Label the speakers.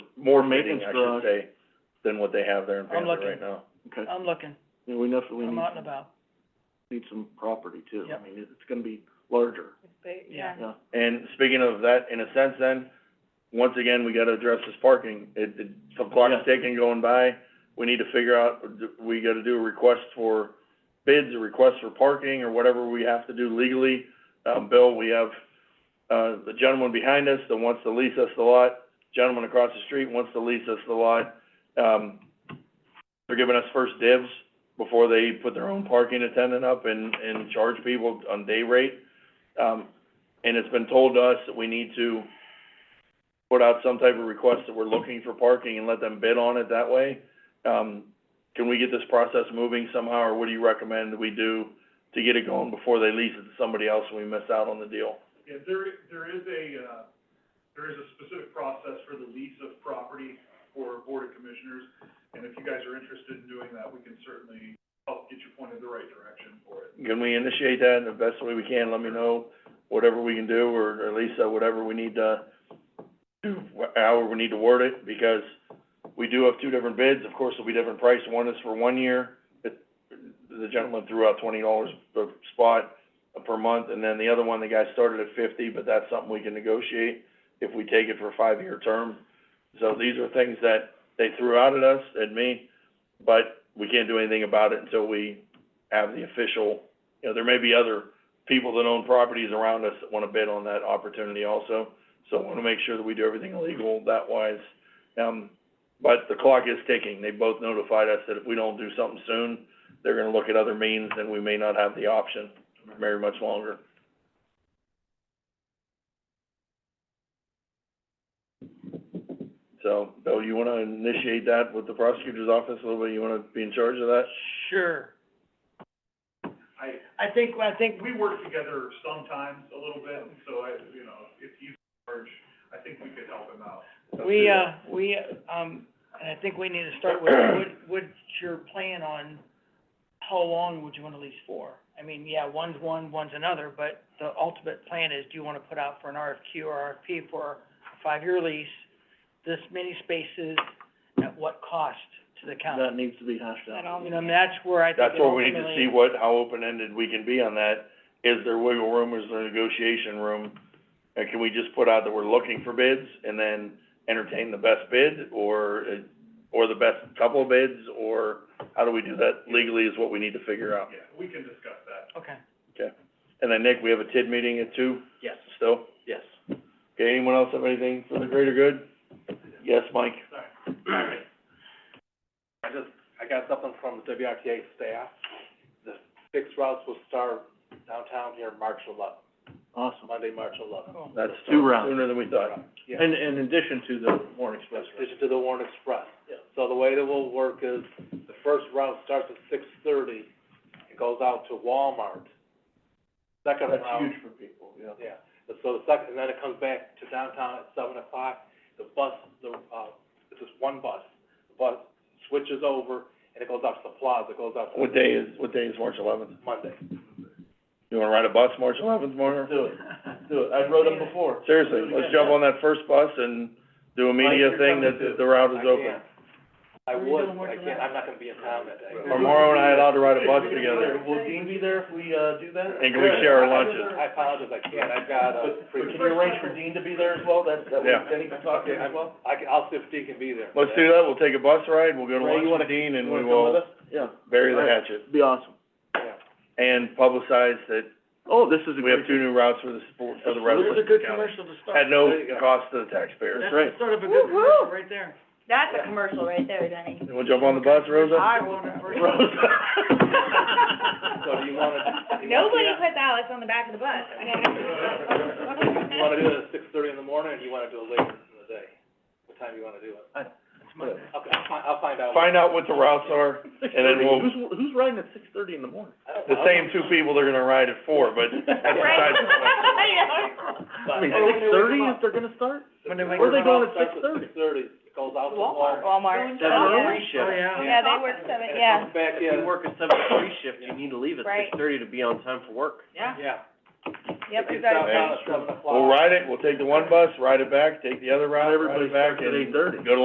Speaker 1: more
Speaker 2: fitting,
Speaker 1: maintenance
Speaker 2: I should
Speaker 1: dogs.
Speaker 2: say, than what they have there in
Speaker 3: I'm
Speaker 2: Panther
Speaker 3: looking.
Speaker 2: right now.
Speaker 1: Okay,
Speaker 3: I'm looking,
Speaker 1: yeah, we definitely
Speaker 3: I'm
Speaker 1: need,
Speaker 3: out and about.
Speaker 1: need some property too.
Speaker 3: Yep.
Speaker 1: I mean, it- it's gonna be larger,
Speaker 4: But,
Speaker 3: Yeah.
Speaker 4: yeah.
Speaker 1: yeah.
Speaker 2: And speaking of that, in a sense then, once again, we gotta address this parking. It, it, the clock's ticking going by. We need to figure out, we gotta do a request for bids, a request for parking, or whatever we have to do legally. Um, Bill, we have, uh, the gentleman behind us that wants to lease us the lot, gentleman across the street wants to lease us the lot. Um, they're giving us first dibs before they put their own parking attendant up and, and charge people on day rate. Um, and it's been told to us that we need to put out some type of request that we're looking for parking and let them bid on it that way. Um, can we get this process moving somehow, or what do you recommend that we do to get it going before they lease it to somebody else and we miss out on the deal?
Speaker 5: Yeah, there, there is a, uh, there is a specific process for the lease of property for Board of Commissioners, and if you guys are interested in doing that, we can certainly help get you pointed the right direction for it.
Speaker 2: Can we initiate that in the best way we can? Let me know whatever we can do, or, or Lisa, whatever we need to do, wh- however we need to word it, because we do have two different bids. Of course, it'll be different price. One is for one year. It, the gentleman threw out twenty dollars per spot uh, per month, and then the other one, the guy started at fifty, but that's something we can negotiate if we take it for a five-year term. So these are things that they threw out at us, at me, but we can't do anything about it until we have the official you know, there may be other people that own properties around us that wanna bid on that opportunity also. So I wanna make sure that we do everything legal that wise. Um, but the clock is ticking. They both notified us that if we don't do something soon, they're gonna look at other means and we may not have the option very much longer. So, Bill, you wanna initiate that with the prosecutor's office a little bit? You wanna be in charge of that?
Speaker 3: Sure.
Speaker 5: I,
Speaker 3: I think, I think,
Speaker 5: we work together sometimes a little bit, and so I, you know, if you charge, I think we could help him out.
Speaker 3: we, uh, we, um, and I think we need to start with, what, what's your plan on how long would you wanna lease for? I mean, yeah, one's one, one's another, but the ultimate plan is, do you wanna put out for an RFQ or RFP for a five-year lease? This many spaces, at what cost to the county?
Speaker 1: That needs to be hashed out.
Speaker 4: That all,
Speaker 3: You know, and that's where I think
Speaker 2: That's
Speaker 3: it
Speaker 2: where we need to
Speaker 3: ultimately-
Speaker 2: see what, how open-ended we can be on that. Is there wiggle room, is there negotiation room? And can we just put out that we're looking for bids and then entertain the best bid or, uh, or the best couple of bids? Or how do we do that legally is what we need to figure out.
Speaker 5: Yeah, we can discuss that.
Speaker 3: Okay.
Speaker 2: And then Nick, we have a TID meeting at two
Speaker 1: Yes,
Speaker 2: still.
Speaker 1: yes.
Speaker 2: Okay, anyone else have anything for the greater good? Yes, Mike?
Speaker 1: Alright. I just, I got something from the WRTA staff. The fixed routes will start downtown here March eleventh. Awesome. Monday, March eleventh.
Speaker 3: Cool.
Speaker 2: That's
Speaker 1: Two rounds.
Speaker 2: Sooner than we thought.
Speaker 1: Yeah,
Speaker 2: And in addition to the Warren Express.
Speaker 1: addition to the Warren Express. So the way that will work is, the first route starts at six thirty, it goes out to Walmart. Second route.
Speaker 2: That's huge for people, yeah.
Speaker 1: Yeah, and so the second, and then it comes back to downtown at seven o'clock, the bus, the, uh, it's just one bus, the bus switches over, and it goes out to the plaza, it goes out to.
Speaker 2: What day is, what day is March eleventh?
Speaker 1: Monday.
Speaker 2: You wanna ride a bus March eleventh, Mark?
Speaker 1: Do it, do it, I rode them before.
Speaker 2: Seriously, let's jump on that first bus and do a media
Speaker 1: Mike, you're
Speaker 2: thing that
Speaker 1: coming too.
Speaker 2: the route
Speaker 1: I
Speaker 2: is open.
Speaker 1: can't, I
Speaker 3: Where you
Speaker 1: would,
Speaker 3: doing work
Speaker 1: I can't, I'm not gonna be in town that day.
Speaker 2: Are Morrow and I allowed to ride a bus together?
Speaker 1: Will Dean be there if we, uh, do that?
Speaker 2: And can we share our lunches?
Speaker 1: I apologize, I can't, I've got, uh.
Speaker 5: but can you arrange for
Speaker 1: Dean to be there as well, that's, that
Speaker 2: way Yeah.
Speaker 1: Dean can talk to him as well? I can, I'll see if Dean can be there.
Speaker 2: Let's do that, we'll take a bus ride, we'll go to
Speaker 1: Ray,
Speaker 2: lunch
Speaker 1: you
Speaker 2: with
Speaker 1: wanna-
Speaker 2: Dean and
Speaker 1: You wanna
Speaker 2: we
Speaker 1: come
Speaker 2: will
Speaker 1: with us? Yeah.
Speaker 2: bury the
Speaker 1: All right.
Speaker 2: hatchet.
Speaker 1: Be awesome.
Speaker 2: And publicize that
Speaker 1: Oh, this is
Speaker 2: we have two new routes for the, sport- for the rest of the county.
Speaker 3: to
Speaker 2: At no
Speaker 1: There you go.
Speaker 2: cost to the taxpayers.
Speaker 1: That's right.
Speaker 3: sort of a good
Speaker 4: Woo-hoo.
Speaker 3: commercial right there.
Speaker 4: That's
Speaker 1: Yeah.
Speaker 4: a commercial right there, Denny.
Speaker 2: You wanna jump on the bus, Rosa?
Speaker 4: I want it for you.
Speaker 2: Rosa.
Speaker 1: So do you wanna, do you wanna do
Speaker 4: Nobody
Speaker 1: that?
Speaker 4: puts Alex on the back of the bus.
Speaker 1: You wanna do it at six thirty in the morning, or do you wanna do it later in the day? What time do you wanna do it?
Speaker 3: That's my-
Speaker 1: Okay, I'll find, I'll find out.
Speaker 2: Find out what the routes are, and then we'll,
Speaker 1: who's, who's riding at six thirty in the morning?
Speaker 2: the same two people they're gonna ride at four, but that's
Speaker 4: Right.
Speaker 2: besides the point.
Speaker 1: I mean,
Speaker 2: Or when
Speaker 1: six
Speaker 2: they
Speaker 1: thirty
Speaker 2: wake
Speaker 1: is they're gonna start?
Speaker 3: When they wake
Speaker 1: Where are they
Speaker 3: up.
Speaker 1: going at six thirty? Six thirty, it goes out to Walmart.
Speaker 4: Walmart.
Speaker 1: That's a
Speaker 4: Oh, yeah.
Speaker 1: free shift.
Speaker 3: Oh, yeah.
Speaker 4: Yeah, they work seven, yeah,
Speaker 1: And it comes back in.
Speaker 6: If you work a seven to three shift, you need to leave at
Speaker 4: Right.
Speaker 6: six thirty to be on time for work.
Speaker 4: yeah,
Speaker 1: Yeah.
Speaker 4: yep,
Speaker 1: It gets
Speaker 4: exactly.
Speaker 1: out at seven o'clock.
Speaker 2: We'll ride it, we'll take the one bus, ride it back, take the other route, ride it back, and
Speaker 1: eight thirty.
Speaker 2: go to